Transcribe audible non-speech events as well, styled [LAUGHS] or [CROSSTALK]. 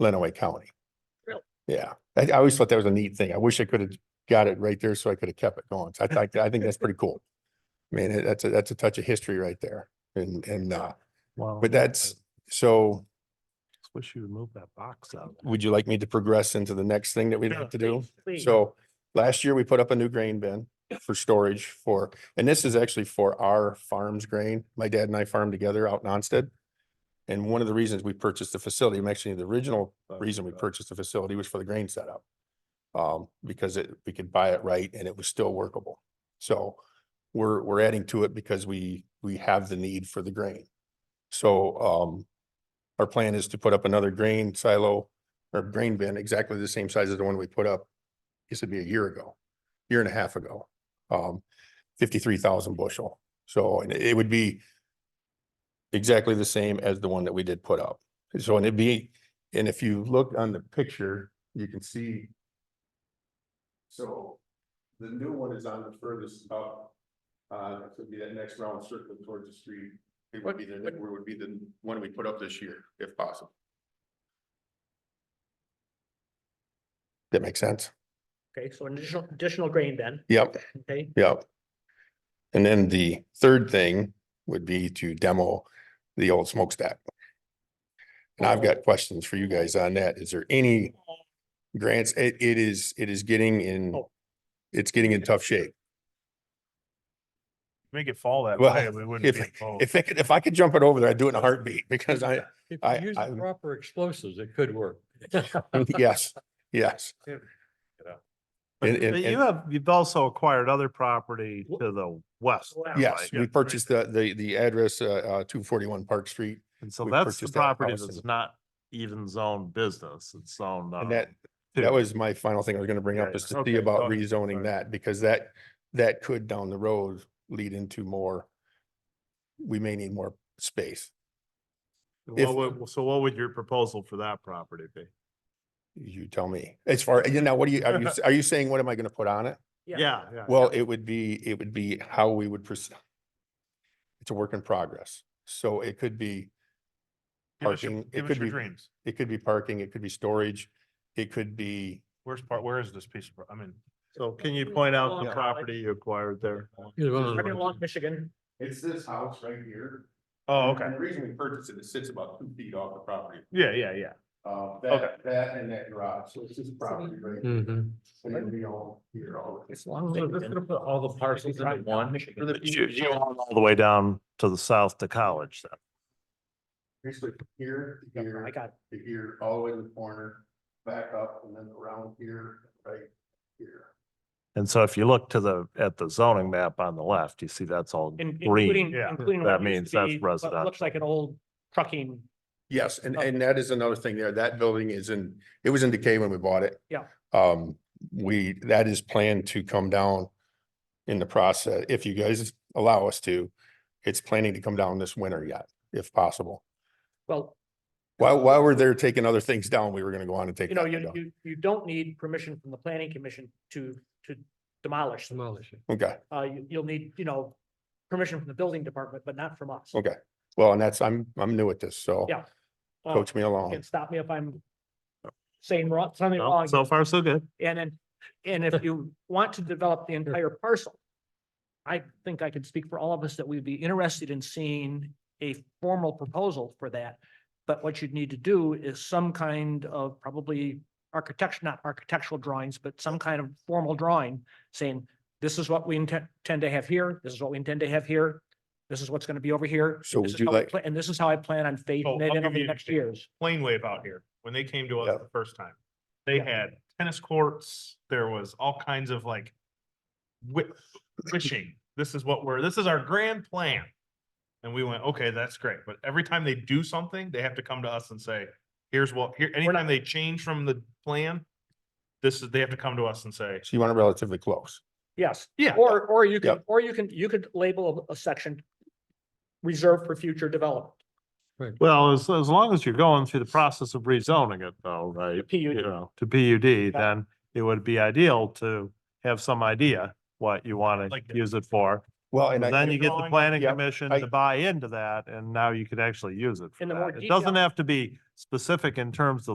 Lenawee County. Really? Yeah, I, I always thought that was a neat thing. I wish I could have got it right there so I could have kept it going. So I think, I think that's pretty cool. I mean, it- that's a, that's a touch of history right there and, and, uh, Wow. but that's, so I Wish you would move that box out. would you like me to progress into the next thing that we'd have to do? Please. So last year we put up a new grain bin for storage for, and this is actually for our farm's grain. My dad and I farm together out in Onstead. And one of the reasons we purchased the facility, and actually the original reason we purchased the facility was for the grain setup. Um, because it, we could buy it right and it was still workable. So we're, we're adding to it because we, we have the need for the grain. So, um, our plan is to put up another grain silo or grain bin, exactly the same size as the one we put up this would be a year ago, year and a half ago, um, fifty-three thousand bushel. So, and it would be exactly the same as the one that we did put up. So, and it'd be, and if you look on the picture, you can see. So the new one is on the furthest up, uh, it would be that next round circle towards the street. It would be the, it would be the one we put up this year, if possible. That makes sense? Okay, so an additional, additional grain bin, Yep. okay? Yep. And then the third thing would be to demo the old smokestack. And I've got questions for you guys on that. Is there any grants? It, it is, it is getting in, Oh. it's getting in tough shape. Make it fall that Well, way, we wouldn't if- be involved. If I could, if I could jump it over there, I'd do it in a heartbeat because [LAUGHS] I, If I- you use I- the proper explosives, it could work. [LAUGHS] yes, [LAUGHS] yes. Yeah. And- But and- but and- you have, you've also acquired other property Wh- to the west. Wow. Yes, Yeah. we purchased the, the, the address, uh, uh, two forty-one Park Street. And so we that's the purchased that property house that's and- not even zoned business, it's zoned. And uh, that, two. That was my final thing I was gonna bring Yeah, up is yeah. to see Okay, go about ahead. rezoning Sorry. that, because that, that could down the road lead into more. We may need more space. if- What would- So what would your proposal for that property be? You tell me. As far, you know, what do you, [LAUGHS] are you, are you saying, what am I gonna put on it? Yeah, Uh, yeah. Well, it would be, it would be how we would proceed. It's a work in progress. So it could be, Give us your- parking, it Give could us your be- dreams. it could be parking, it could be storage, it could be, Where's part, where is this piece of, pro- I mean, so can you point out the Yeah. property you acquired there? Either one of Right along those. Michigan, it's this house right here. Oh, And okay, the reason we purchased it, it sits about two feet off the property yeah, yeah, yeah. Uh, Okay. that, that and that garage, so it's just property right? here. Mm-hmm. Mhm. So it'll be all here, all. as long as. Just gonna put all the parcels into one. for the But You, future. you own all the way down to the south to college then? Basically here, to Yeah, I here, got, to here, all the way to the corner, back up and then around here, right here. And so if you look to the, at the zoning map on the left, you see that's all in- green. including, Yeah. including. That what used means to that's be what residential. Looks like an old trucking, Yes, and, and that is another thing there. That building is in, it was in decay when we bought it. Yeah. Um, we, that is planned to come down in the process, if you guys allow us to. It's planning to come down this winter yet, if possible. well, While, while we're there taking other things down, we were gonna go on and take. you know, that one you, down. you, you don't need permission from the planning commission to, to demolish. them. Demolish it. Okay. Uh, you, you'll need, you know, permission from the building department, but not from us. Okay. Well, and that's, I'm, I'm new at this, so. Yeah. Uh, Coach me along. And stop me if I'm saying wrong, something No, wrong. So far, so good. And then, and if you want to [LAUGHS] develop the entire parcel, I think I could speak for all of us that we'd be interested in seeing a formal proposal for that. But what you'd need to do is some kind of probably architecture, not architectural drawings, but some kind of formal drawing saying, this is what we intend, intend to have here, this is what we intend to have here, this is what's going to be over here. So this would is you how I like- pla- And this is how I plan on Oh, fading it I'll in give you over the an next example. years. Plane Wave out here, when they came to Yeah. us the first time, they Yeah. had tennis courts, there was all kinds of like wi- wishing, this is what we're, this is our grand plan. And we went, okay, that's great, but every time they do something, they have to come to us and say, here's what, here, anytime they change from the plan, this is, they have to come to us and say, So you want it relatively close. Yes. yeah, [LAUGHS] Or, or you can, Yep. or you can, you could label a a section reserved for future development. Well, as, as long as you're going through the process of rezoning it though, right? PUD. You know, to PUD, Yeah. then it would be ideal to have some idea what you want to Like the- use it for. Well, and I, Then you get the drawing, planning yeah, commission I- to buy into that and now you could actually use it for And the more that. It doesn't detail- have to be specific in terms of